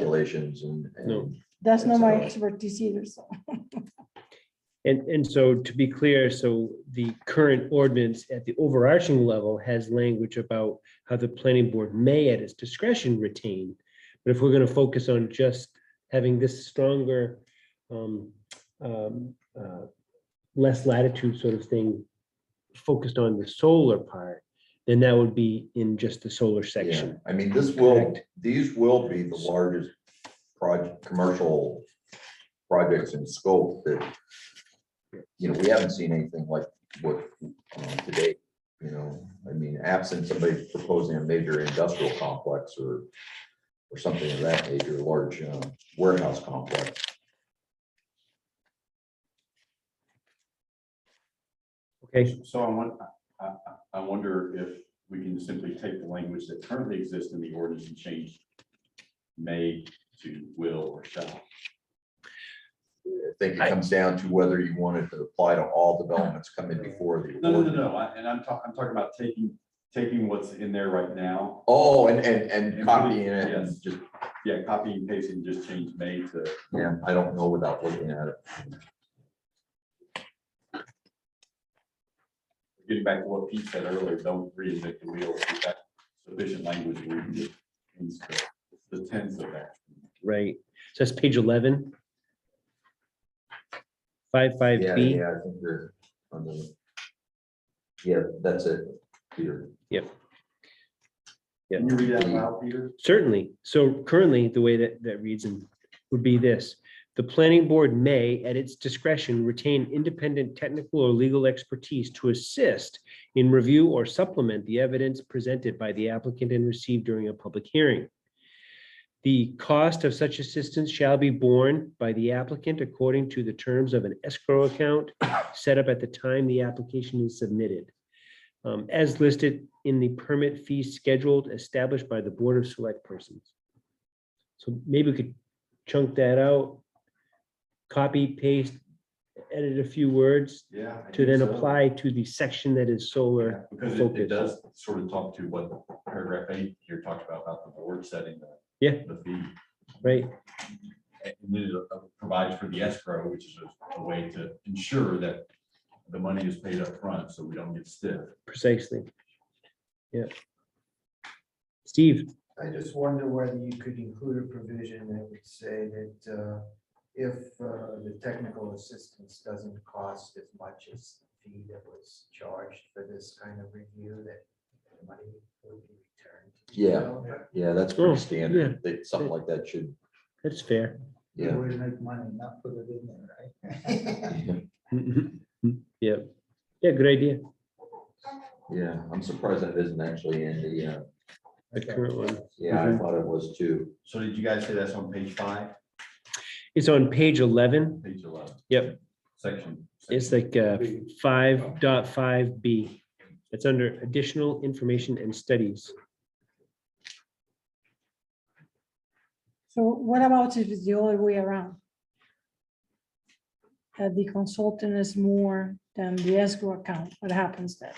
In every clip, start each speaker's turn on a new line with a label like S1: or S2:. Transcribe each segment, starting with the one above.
S1: calculations and. and-
S2: No.
S3: That's not my
S1: So-
S3: expertise either, so.
S2: And, and so to be clear, so the current ordinance at the overarching level has language about how the planning board may at its discretion retain. But if we're going to focus on just having this stronger, um, um, uh, less latitude sort of thing focused on the solar part, then that would be in just the solar
S1: Yeah,
S2: section.
S1: I mean, this will,
S2: Correct.
S1: these will be the largest project, commercial projects in scope that, you know, we haven't seen anything like what um, today, you know, I mean, absent somebody proposing a major industrial complex or or something of that nature, large uh, warehouse complex.
S2: Okay,
S4: So I want, I, I, I wonder if we can simply take the language that currently exists in the ordinance and change may to will or shall.
S1: I think
S2: I-
S1: it comes down to whether you want it to apply to all developments coming before the.
S4: No, no, no,
S1: ordinance.
S4: no, I- and I'm talking, I'm talking about taking, taking what's in there right now.
S1: Oh, and and
S4: And
S1: and copying it and
S4: yes.
S1: just,
S4: Yeah, copy and paste and just change may to,
S1: yeah, I don't know without looking at it.
S4: getting back to what Pete said earlier, don't reinvent the wheel. We've got sufficient language. where we can get things to The tense of that.
S2: right. So that's page 11. Five, five
S1: Yeah,
S2: B.
S1: yeah, I think you're on the. Yeah, that's it, Peter.
S4: Can you read that aloud, Peter?
S2: Certainly. So currently, the way that, that reads in would be this. The planning board may, at its discretion, retain independent technical or legal expertise to assist in review or supplement the evidence presented by the applicant and received during a public hearing. The cost of such assistance shall be borne by the applicant according to the terms of an escrow account set up at the time the application is submitted um, as listed in the permit fee scheduled established by the Board of Select Persons. So maybe we could chunk that out, copy, paste, edit a few words
S4: Yeah. I
S2: to
S4: think
S2: then
S4: so.
S2: apply to the section that is solar.
S4: Because it,
S2: focus.
S4: it does sort of talk to what paragraph eight here talked about, about the board setting the.
S2: Yeah.
S4: The fee,
S2: Right,
S4: and then it uh, provides for the escrow, which is a, a way to ensure that the money is paid up front, so we don't get stiff.
S2: precisely. Yeah. Steve,
S5: I just wonder whether you could include a provision that would say that uh, if uh, the technical assistance doesn't cost as much as the fee that was charged for this kind of review, that the money would be returned. to the
S1: Yeah.
S5: developer.
S1: Yeah, that's
S2: Oh,
S1: pretty standard, that something like that should,
S2: that's fair.
S5: They
S1: yeah.
S5: would make money, not put it in there, right?
S2: Mhm. Yeah, yeah, good idea,
S1: Yeah, I'm surprised that isn't actually in the, uh,
S2: the current one.
S1: yeah, I
S2: Mhm.
S1: thought it was too.
S4: So did you guys say that's on page five,
S2: It's on page eleven,
S4: page eleven?
S2: Yep.
S4: Section.
S2: it's like uh, five dot five B. It's under additional information and studies.
S3: So what about if it's the other way around? That the consultant is more than the escrow account, what happens then?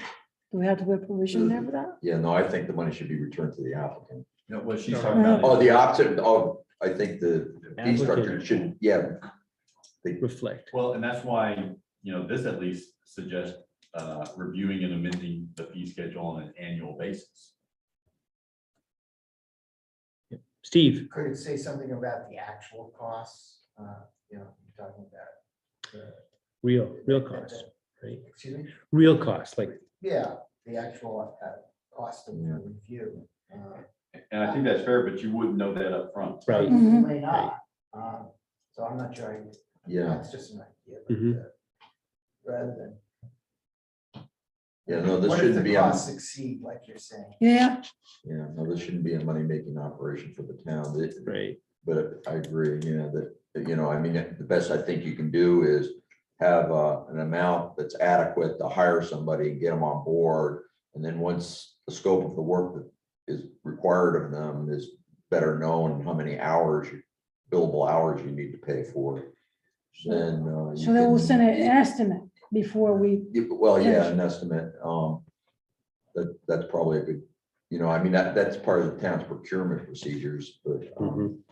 S3: Do we have to put provision there for that?
S1: Yeah, no, I think the money should be returned to the applicant.
S4: No, what she's talking about.
S1: Oh, the opposite, oh, I think the fee structure
S2: Applicant.
S1: should, yeah. They-
S2: Reflect.
S4: Well, and that's why, you know, this at least suggests uh, reviewing and amending the fee schedule on an annual basis.
S2: Steve,
S5: Could it say something about the actual costs, uh, you know, you're talking about? the-
S2: real, real cost, right?
S5: Excuse me?
S2: Real cost, like,
S5: Yeah, the actual uh, cost of the review. uh,
S4: And I think that's fair, but you wouldn't know that up front.
S2: right,
S5: You
S3: Mhm.
S5: may not, um, so I'm not sure, I-
S1: Yeah,
S5: that's just an idea. but,
S2: Mhm.
S5: uh, Rather than.
S1: yeah, no, this
S5: What if the
S1: shouldn't be, on.
S5: costs Succeed, like you're saying.
S3: Yeah,
S1: yeah, no, this shouldn't be a money-making operation for the town. It-
S2: right,
S1: But I agree, you know, that, that, you know, I mean, the best I think you can do is have uh, an amount that's adequate to hire somebody and get them on board. And then once the scope of the work that is required of them is better known, and how many hours, billable hours you need to pay for, then. uh, you
S3: so they will
S1: can-
S3: send an estimate before we,
S1: Yeah, Well, yeah,
S3: Finish.
S1: an estimate, um, that, that's probably a good You know, I mean, that, that's part of the town's procurement procedures, but um,
S2: Mhm.